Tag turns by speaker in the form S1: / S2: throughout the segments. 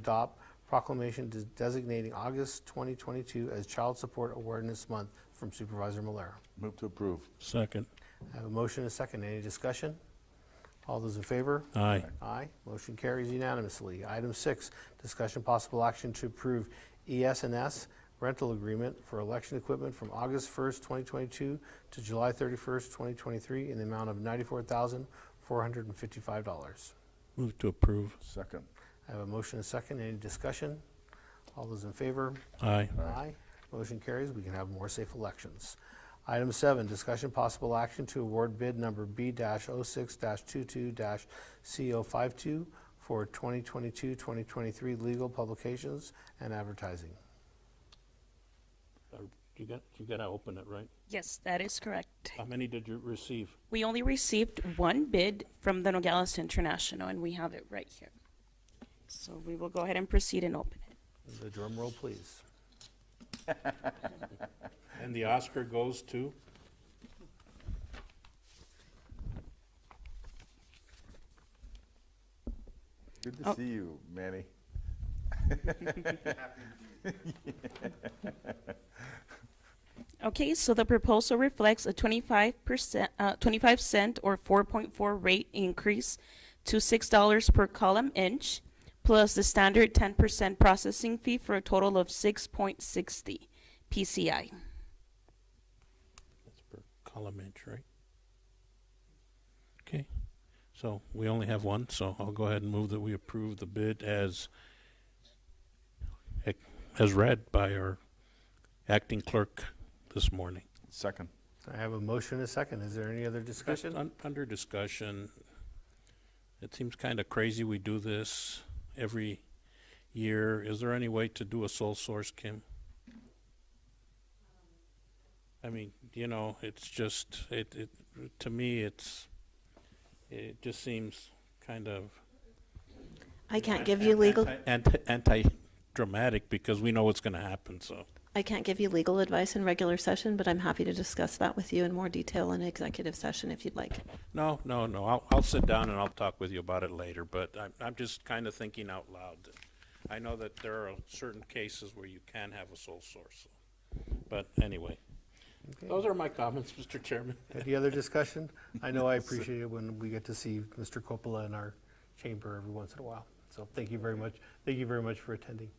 S1: adopt proclamation des- designating August 2022 as Child Support Awareness Month from Supervisor Malera.
S2: Move to approve.
S3: Second.
S1: I have a motion and a second. Any discussion? All those in favor?
S3: Aye.
S1: Aye. Motion carries unanimously. Item six, discussion possible action to approve E ES&S rental agreement for election equipment from August 1st, 2022 to July 31st, 2023 in the amount of $94,455.
S3: Move to approve.
S2: Second.
S1: I have a motion and a second. Any discussion? All those in favor?
S3: Aye.
S1: Aye. Motion carries. We can have more safe elections. Item seven, discussion possible action to award bid number B-06-22-CO52 for 2022-2023 legal publications and advertising.
S3: Uh, You got, you got to open it, right?
S4: Yes, that is correct.
S3: How many did you receive?
S4: We only received one bid from the Nogales International, and we have it right here. So we will go ahead and proceed and open it.
S1: The drum roll, please.
S3: And the Oscar goes to?
S2: Good to
S4: Oh.
S2: see you, Manny.
S4: Okay, so the proposal reflects a twenty-five percent, uh, twenty-five cent or four point four rate increase to six dollars per column inch, plus the standard ten percent processing fee for a total of six point sixty PCI.
S3: That's per column inch, right? Okay, so we only have one, so I'll go ahead and move that we approve the bid as ec- as read by our acting clerk this morning.
S2: Second.
S1: I have a motion and a second. Is there any other discussion?
S3: Un- Under discussion, it seems kind of crazy we do this every year. Is there any way to do a sole source, Kim? I mean, you know, it's just, it, it, to me, it's, it just seems kind of
S5: I can't give you legal,
S3: anti, anti-dramatic because we know what's going to happen, so.
S5: I can't give you legal advice in regular session, but I'm happy to discuss that with you in more detail in executive session if you'd like.
S3: No, no, no, I'll, I'll sit down and I'll talk with you about it later, but I'm, I'm just kind of thinking out loud. I know that there are certain cases where you can have a sole source, but anyway.
S1: Okay.
S3: Those are my comments, Mr. Chairman.
S1: Any other discussion? I know I appreciate it when we get to see Mr. Coppola in our chamber every once in a while. So thank you very much. Thank you very much for attending.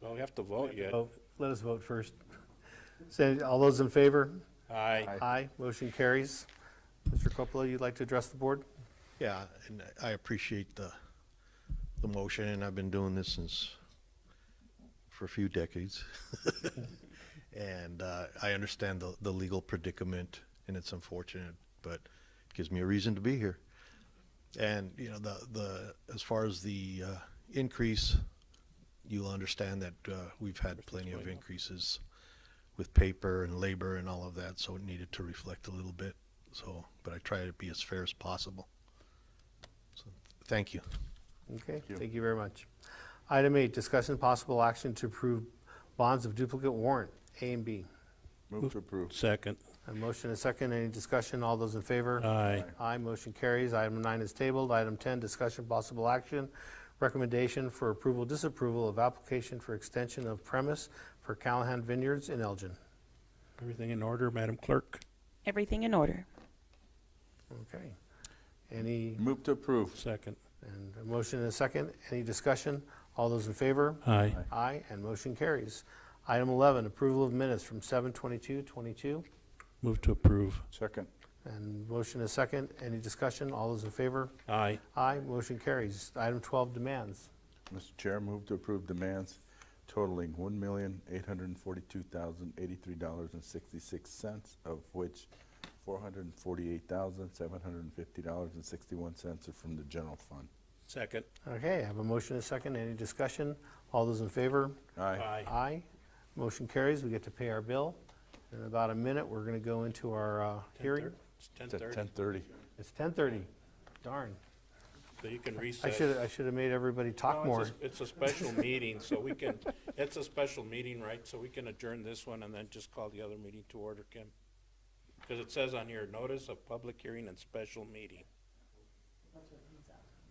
S3: Well, we have to vote yet.
S1: Oh, Let us vote first. Say, all those in favor?
S3: Aye.
S1: Aye, motion carries. Mr. Coppola, you'd like to address the board?
S6: Yeah, and I appreciate the, the motion, and I've been doing this since, for a few decades. And uh, I understand the, the legal predicament, and it's unfortunate, but it gives me a reason to be here. And, you know, the, the, as far as the uh, increase, you'll understand that uh, we've had plenty of increases with paper and labor and all of that, so it needed to reflect a little bit, so, but I try to be as fair as possible. Thank you.
S1: Okay, thank you very much. Item eight, discussion and possible action to approve bonds of duplicate warrant, A and B.
S2: Move to approve.
S3: Second.
S1: A motion and a second, any discussion, all those in favor?
S3: Aye.
S1: Aye, motion carries. Item nine is tabled. Item 10, discussion possible action, recommendation for approval, disapproval of application for extension of premise for Callahan Vineyards in Elgin.
S3: Everything in order, Madam Clerk?
S4: Everything in order.
S1: Okay. Any
S2: Move to approve.
S3: Second.
S1: And a motion and a second. Any discussion? All those in favor?
S3: Aye.
S1: Aye, and motion carries. Item 11, approval of minutes from 7:22:22.
S3: Move to approve.
S2: Second.
S1: And motion and a second. Any discussion? All those in favor?
S3: Aye.
S1: Aye, motion carries. Item 12, demands.
S2: Mr. Chair, move to approve demands totaling one million, eight hundred and forty-two thousand, eighty-three dollars and sixty-six cents, of which four hundred and forty-eight thousand, seven hundred and fifty dollars and sixty-one cents are from the general fund.
S3: Second.
S1: Okay, I have a motion and a second. Any discussion? All those in favor?
S2: Aye.
S1: Aye, motion carries. We get to pay our bill. In about a minute, we're going to go into our uh, hearing.
S3: It's
S2: It's at
S3: 10:30,
S2: ten-thirty.
S1: It's 10:30. Darn.
S3: so you can recess.
S1: I should, I should have made everybody
S3: No,
S1: talk
S3: it's a
S1: more.
S3: s- It's a special meeting, so we can, it's a special meeting, right? So we can adjourn this one and then just call the other meeting to order, Kim? Because it says on here, notice of public hearing and special meeting.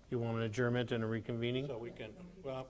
S1: You want an adjournment and a reconvening?
S3: So we can, well,